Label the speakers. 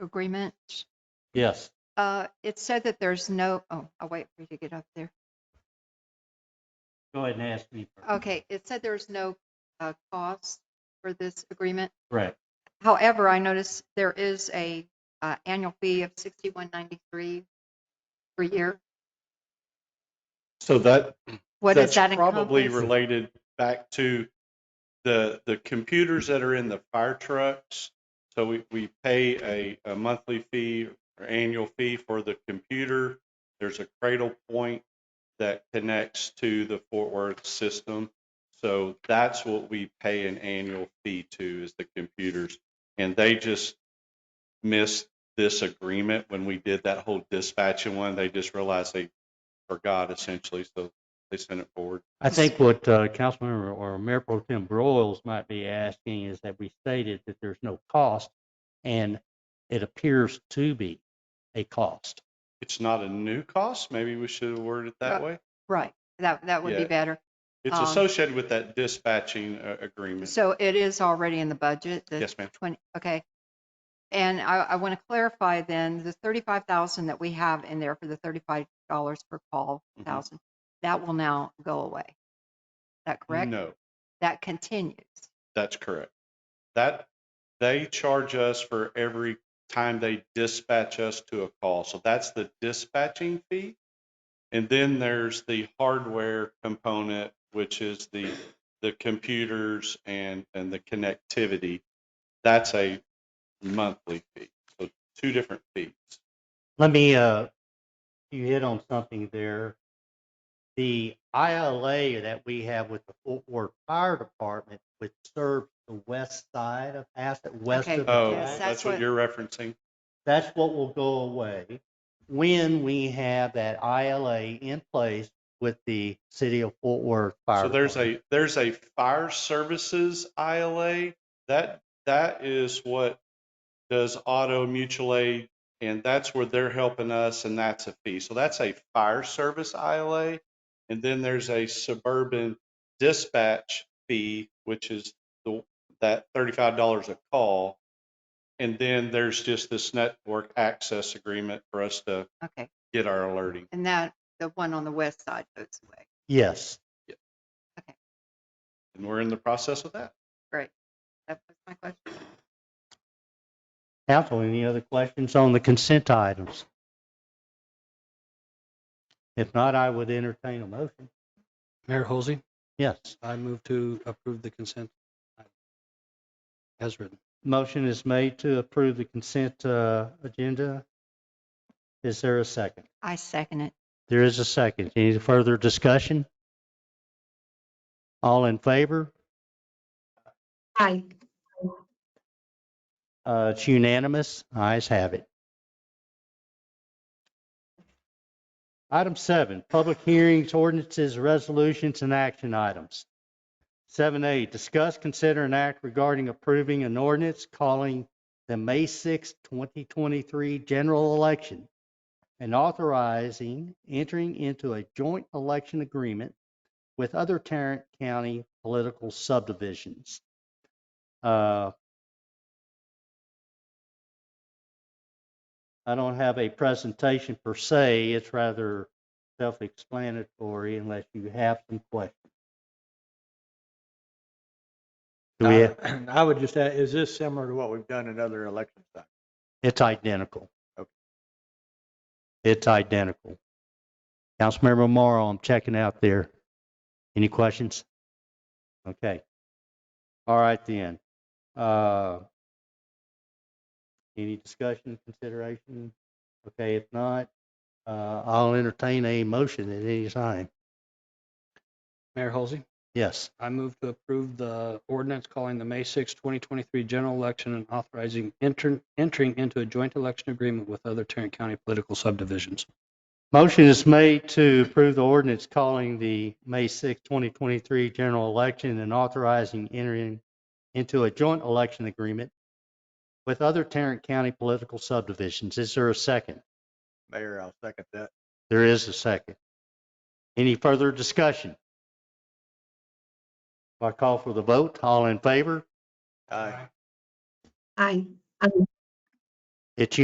Speaker 1: agreement,
Speaker 2: Yes.
Speaker 1: uh, it said that there's no, oh, I'll wait for you to get up there.
Speaker 2: Go ahead and ask me. first.
Speaker 1: Okay, it said there's no uh, cost for this agreement.
Speaker 2: Right.
Speaker 1: However, I noticed there is a uh, annual fee of 6193 per year.
Speaker 3: So that,
Speaker 1: What does
Speaker 3: that's
Speaker 1: that
Speaker 3: probably
Speaker 1: encompass?
Speaker 3: related back to the, the computers that are in the fire trucks. So we, we pay a, a monthly fee or annual fee for the computer. There's a cradle point that connects to the Fort Worth system. So that's what we pay an annual fee to is the computers. And they just missed this agreement when we did that whole dispatching one. They just realized they forgot essentially. So they sent it forward.
Speaker 2: I think what uh, Councilmember or Mayor Pro Tem Broyles might be asking is that we stated that there's no cost, and it appears to be a cost.
Speaker 3: It's not a new cost. Maybe we should have worded it that
Speaker 1: Uh,
Speaker 3: way.
Speaker 1: Right, that, that would be
Speaker 3: Yeah.
Speaker 1: better.
Speaker 3: It's
Speaker 1: um,
Speaker 3: associated with that dispatching uh, agreement.
Speaker 1: So uh, it is already in the budget? the
Speaker 3: Yes, ma'am.
Speaker 1: 20, okay. And I, I want to clarify then, the 35,000 that we have in there for the $35 per call,
Speaker 3: Mhm.
Speaker 1: thousand, that will now go away. Is that correct?
Speaker 3: No,
Speaker 1: That continues.
Speaker 3: that's correct. That, they charge us for every time they dispatch us to a call. So that's the dispatching fee. And then there's the hardware component, which is the, the computers and, and the connectivity. That's a monthly fee. So two different fees.
Speaker 2: Let me, uh, you hit on something there. The ILA that we have with the Fort Worth Fire Department, which serves the west side of Asset, west
Speaker 1: Okay.
Speaker 2: of the
Speaker 3: Oh,
Speaker 1: Yes,
Speaker 2: track.
Speaker 1: that's
Speaker 3: that's what
Speaker 1: what-
Speaker 3: you're referencing.
Speaker 2: That's what will go away when we have that ILA in place with the city of Fort Worth Fire.
Speaker 3: So there's
Speaker 2: Department.
Speaker 3: a, there's a fire services ILA. That, that is what does auto mutual aid. And that's where they're helping us and that's a fee. So that's a fire service ILA. And then there's a suburban dispatch fee, which is the, that thirty-five dollars a call. And then there's just this network access agreement for us to
Speaker 1: Okay.
Speaker 3: get our alerting.
Speaker 1: And that, the one on the west side goes away.
Speaker 2: Yes.
Speaker 3: And we're in the process of that.
Speaker 1: That was my question.
Speaker 2: Council, any other questions on the consent items? If not, I would entertain a motion.
Speaker 4: Mayor Holsey,
Speaker 2: Yes.
Speaker 4: I move to approve the consent item as written.
Speaker 2: Motion is made to approve the consent uh, agenda. Is there a second?
Speaker 1: I second it.
Speaker 2: There is a second. Any further discussion? All in favor?
Speaker 5: Aye.
Speaker 2: Uh, It's unanimous. Ayes have it. Item seven, public hearings, ordinances, resolutions, and action items. Seven A, discuss, consider, and act regarding approving an ordinance calling the May sixth, twenty 2023 general election and authorizing entering into a joint election agreement with other Tarrant County political subdivisions. Uh, I don't have a presentation per se. It's rather self-explanatory unless you have some questions. Do we, have-
Speaker 6: I I would just add, is this similar to what we've done in other election cycles?
Speaker 2: it's identical.
Speaker 6: Okay.
Speaker 2: It's identical. Councilmember Morrow, I'm checking out there. Any questions? Okay. All right then. Uh, Any discussion, consideration? Okay, if not, uh, I'll entertain a motion at any time.
Speaker 4: Mayor Holsey,
Speaker 2: Yes.
Speaker 4: I move to approve the ordinance calling the May 6, 2023 general election and authorizing enter- entering into a joint election agreement with other Tarrant County political subdivisions.
Speaker 2: Motion is made to approve the ordinance calling the May 6, 2023 general election and authorizing entering into a joint election agreement with other Tarrant County political subdivisions. Is there a second?
Speaker 6: Mayor, I'll second that.
Speaker 2: There is a second. Any further discussion? If I call for the vote, all in favor?
Speaker 6: Aye.
Speaker 5: Aye.
Speaker 2: It's